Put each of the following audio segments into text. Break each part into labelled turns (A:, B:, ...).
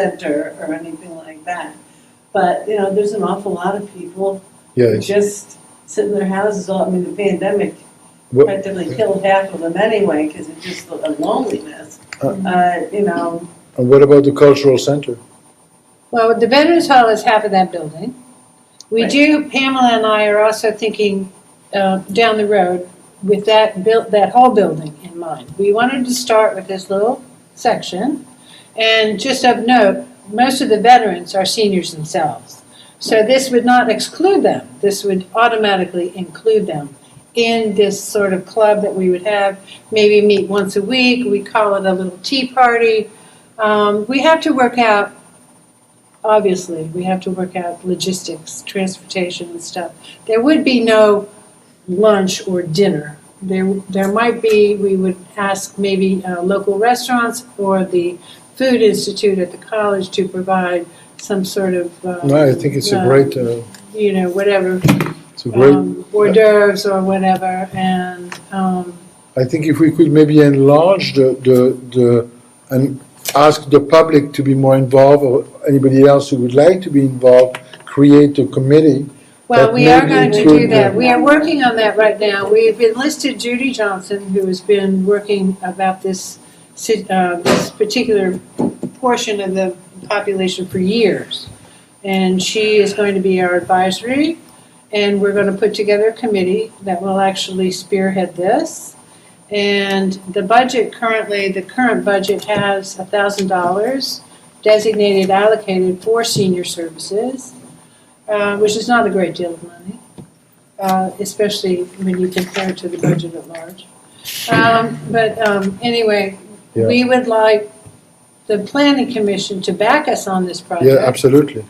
A: center or anything like that. But, you know, there's an awful lot of people who
B: Yeah,
A: just sit in their houses all, I mean, the pandemic
B: What-
A: practically killed half of them anyway, because it's just the loneliness.
B: Uh.
A: Uh, you know,
B: and what about the cultural center?
C: Well, the Veterans Hall is half of that building. We
A: Right.
C: do, Pamela and I are also thinking uh, down the road with that built, that whole building in mind. We wanted to start with this little section. And just of note, most of the veterans are seniors themselves. So this would not exclude them. This would automatically include them in this sort of club that we would have. Maybe meet once a week. We call it a little tea party. Um, We have to work out obviously, we have to work out logistics, transportation and stuff. There would be no lunch or dinner. There, there might be, we would ask maybe uh, local restaurants or the Food Institute at the college to provide some sort of. um,
B: No, I think it's a
C: uh,
B: great, uh,
C: You know, whatever,
B: it's a great,
C: um, hors d'oeuvres or whatever, and, um,
B: I think if we could maybe enlarge the, the, the, and ask the public to be more involved or anybody else who would like to be involved, create a committee.
C: Well,
B: But
C: we are
B: maybe
C: going to
B: we
C: do
B: could,
C: that.
B: uh,
C: We are working on that right now. We have enlisted Judy Johnson, who has been working about this, sit- uh, this particular portion of the population for years. And she is going to be our advisory, and we're going to put together a committee that will actually spearhead this. And the budget currently, the current budget has thousand dollars designated, allocated for senior services uh, which is not a great deal of money, uh, especially when you compare it to the budget at large. Um, But um, anyway, we would like the planning commission to back us on this
B: Yeah,
C: project.
B: absolutely.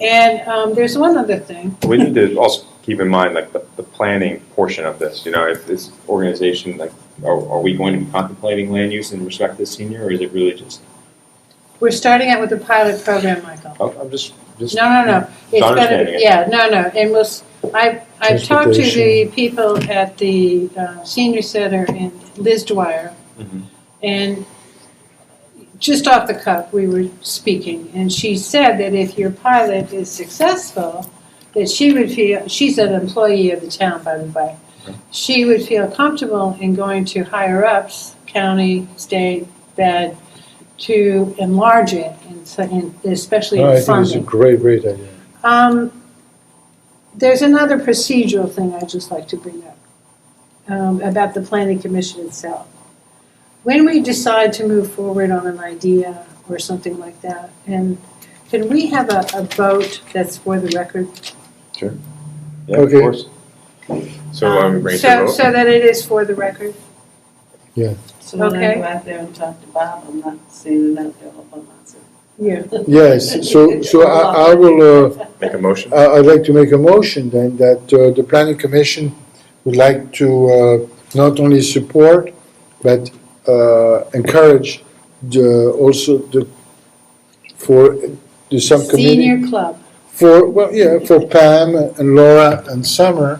C: And um, there's one other thing.
D: We need to also keep in mind like the, the planning portion of this, you know, if this organization, like, are, are we going to be contemplating land use in respect to the senior, or is it really just,
C: We're starting out with a pilot program, Michael.
D: oh, I'm I'm just, just.
C: No, no, no. It's gonna-
D: understanding it.
C: Yeah, no, no, and we'll, s- I've, I've talked to the
B: Transportation.
C: people at the uh, senior center and Liz Dwyer.
D: Mhm.
C: And just off the cuff, we were speaking, and she said that if your pilot is successful, that she would feel, she's an employee of the town, by the way. She would feel comfortable in going to higher ups, county, state, fed, to enlarge it, and so- and especially
B: No, I
C: in
B: think it's a
C: funding.
B: great, great idea.
C: Um, There's another procedural thing I'd just like to bring up um, about the planning commission itself. When we decide to move forward on an idea or something like that, and can we have a, a vote that's for the record?
D: Yeah, of
B: Okay.
D: course. So, um,
C: Um,
D: raise the
C: So,
D: vote.
C: so that it is for the record?
A: so when I
C: Okay.
A: go out there and talk to Bob, I'm not saying that they're all by myself.
C: Yeah.
B: Yes, so, so I, I will, uh,
D: Make a motion?
B: I- Uh, I'd like to make a motion then that uh, the planning commission would like to uh, not only support, but uh, encourage the, also the, for the subcommittee,
C: Senior club.
B: for, well, yeah, for Pam and Laura and Summer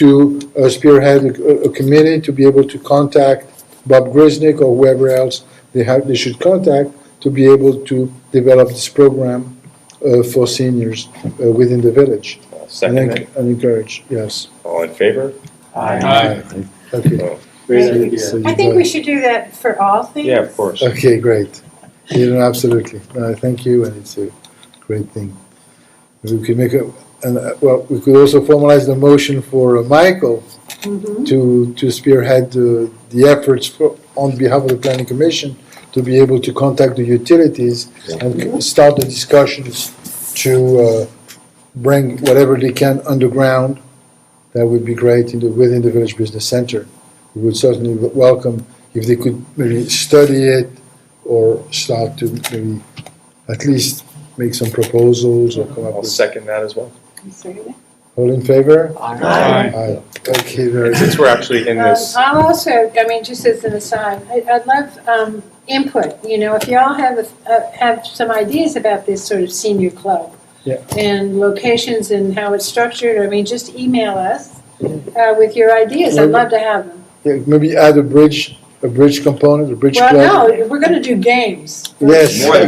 B: to uh, spearhead a a committee to be able to contact Bob Grisnick or whoever else they have, they should contact to be able to develop this program uh, for seniors uh, within the village.
D: Uh,
B: And
D: Second, it.
B: enc- And encourage, yes.
D: all in favor?
B: Okay.
D: Oh,
B: So you
C: I think
B: got-
C: we should do that for all things.
D: Yeah, of course.
B: Okay, great. You know, absolutely. No, thank you, and it's a great thing. We could make a, and, uh, well, we could also formalize the motion for uh, Michael
C: Mhm.
B: to, to spearhead the, the efforts for, on behalf of the planning commission to be able to contact the utilities and c- start the discussions to, uh, bring whatever they can underground. That would be great in the, within the village business center. We would certainly w- welcome if they could maybe study it or start to maybe at least make some proposals or come up
D: I'll
B: with.
D: second that as well.
B: All in favor? Aye. Okay, very good.
D: Since we're actually in
C: Um,
D: this,
C: I'll also, I mean, just as an aside, I- I'd love um, input, you know, if y'all have, a- uh, have some ideas about this sort of senior club.
B: Yeah.
C: And locations and how it's structured, I mean, just email us uh, with your ideas, I'd love to have them.
B: Yeah, maybe add a bridge, a bridge component, a bridge club.
C: Well, no, we're gonna do games.
B: Yes.
D: More than